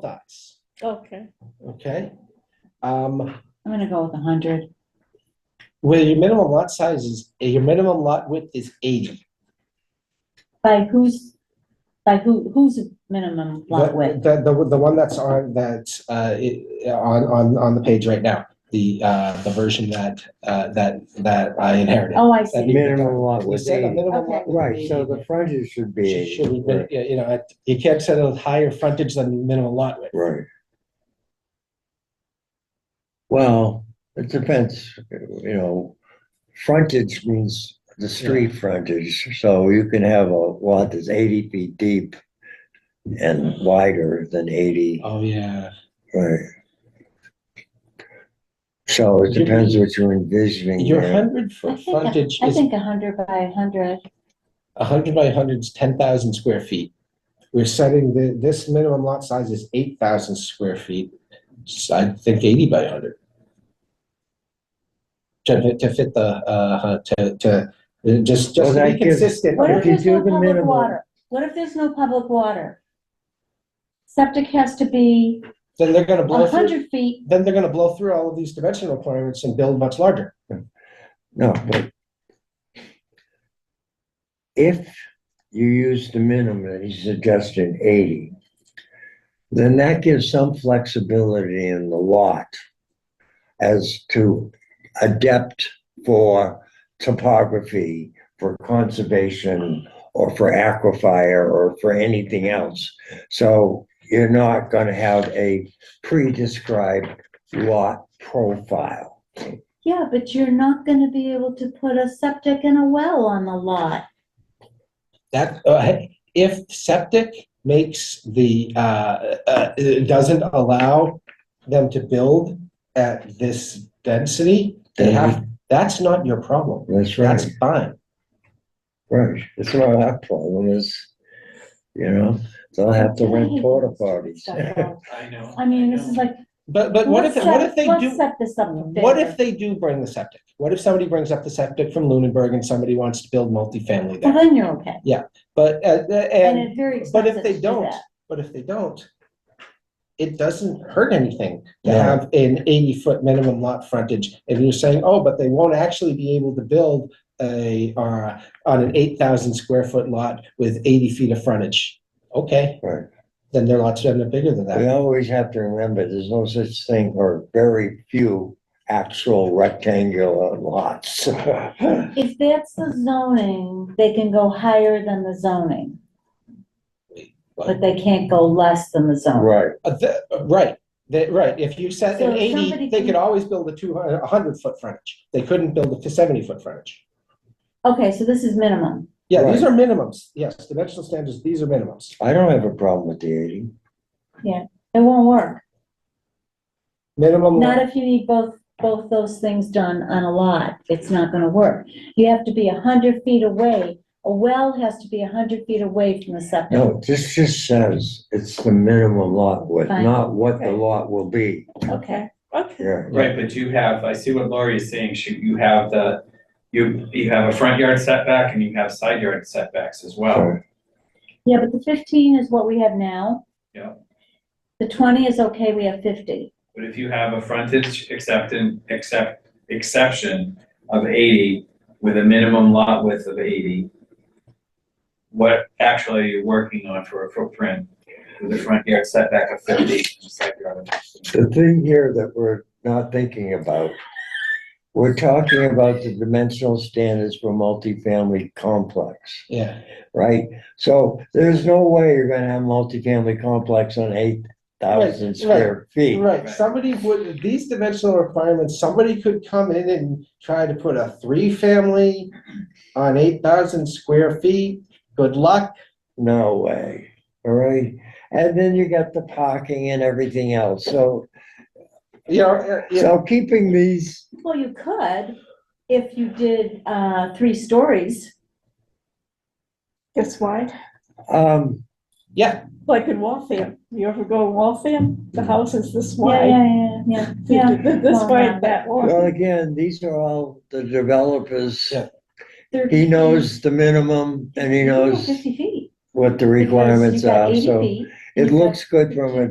multis, Okay. okay? Um, I'm gonna go with a hundred. where your minimum lot size is, your minimum lot width is eighty. By whose, by who, who's the minimum lot width? The, the, the one that's on, that's, uh, it- on, on, on the page right now, the, uh, the version that, uh, that, that I inherited. Oh, I That see. Minimum lot We was said a eighty. minimum lot Oh, Okay. Right, so the frontage should be should- should eighty. have been, you know, at- you can't set a higher frontage than minimum lot width. Right. Well, it depends, you know, frontage means the street frontage, so you can have a lot that's eighty feet deep and wider than eighty, Oh, yeah. right? So it depends what you're envisioning Your there. hundred I foot think, frontage a- I is think a hundred by a hundred. a hundred by hundred is ten thousand square feet. We're setting the, this minimum lot size is eight thousand square feet. Just, I think eighty by hundred. To, to fit the, uh, to, to, just, Well, just to be that gives- consistent. What if you there's do no the public minimum- water? What if there's no public water? Septic has to be Then they're gonna a blow through, hundred feet. then they're gonna blow through all of these dimension requirements and build much larger. No, but if you use the minimum that he's suggesting, eighty, then that gives some flexibility in the lot as to adept for topography, for conservation, or for aquifer, or for anything else. So you're not gonna have a pre-described lot profile. Yeah, but you're not gonna be able to put a septic and a well on the lot. That, uh, hey, if septic makes the, uh, uh, it doesn't allow them to build at this density, they have, that's not your problem. That's right. That's fine. Right, it's not our problem, it's, you know, they'll have to rent porta potties. I know. I mean, this is like, But, but what if, let's what if set, they let's do, set this up for what if failure. they do bring the septic? What if somebody brings up the septic from Lunenburg and somebody wants to build multifamily Well, there? then you're okay. But, uh, uh, Uh-huh. And and, it's very but if expensive to they do don't, that. but if they don't, it doesn't hurt anything to No. have an eighty-foot minimum lot frontage. If you're saying, oh, but they won't actually be able to build a, uh, on an eight thousand square foot lot with eighty feet of frontage. Okay, Right, then their lots end up bigger than we that. always have to remember, there's no such thing or very few actual rectangular lots. If that's the zoning, they can go higher than the zoning, but they can't go less than the zoning. Right, Uh, the- uh, Right, They- right, if you set So an if eighty, somebody they can- could always build a two hundred, a hundred foot frontage, they couldn't build a seventy foot frontage. Okay, so this is minimum. Yeah, these are minimums, yes, dimensional standards, these are minimums. I don't have a problem with the eighty. It won't work. Minimum. Not if you need both, both those things done on a lot. It's not gonna work. You have to be a hundred feet away. A well has to be a hundred feet away from the septic. No, this just says it's the minimum lot width, Fine. not what the Okay. lot will be, Okay. Okay. yeah. Right, but you have, I see what Laurie is saying, she, you have the, you, you have a front yard setback and you have side yard setbacks as well. So, Yeah, but the fifteen is what we have now. Yeah. The twenty is okay, we have fifty. But if you have a frontage acceptance, except, exception of eighty with a minimum lot width of eighty, what actually are you working on for a footprint with a front yard setback of fifty and side yard? of- The thing here that we're not thinking about, we're talking about the dimensional standards for multifamily complex. Yeah, right? So there's no way you're gonna have multifamily complex on eight Right, thousand right, square feet. right, Right. somebody would, these dimensional requirements, somebody could come in and try to put a three-family on eight thousand square feet, good luck. No way, all right? And then you got the parking and everything else, so, You know, uh, you know, so keeping these, Well, you could if you did, uh, three stories. Guess why? um, yeah, Like in Waltham. You ever go to Waltham? The house is this wide. Yeah, yeah, yeah, yeah, Oh, yeah. This Well, yeah. wide, that well, wide. again, these are all the developers. Yeah. They're- He knows the minimum and he You go knows Fifty feet. what the because requirements you got are, 80 so feet, it you've got looks good from a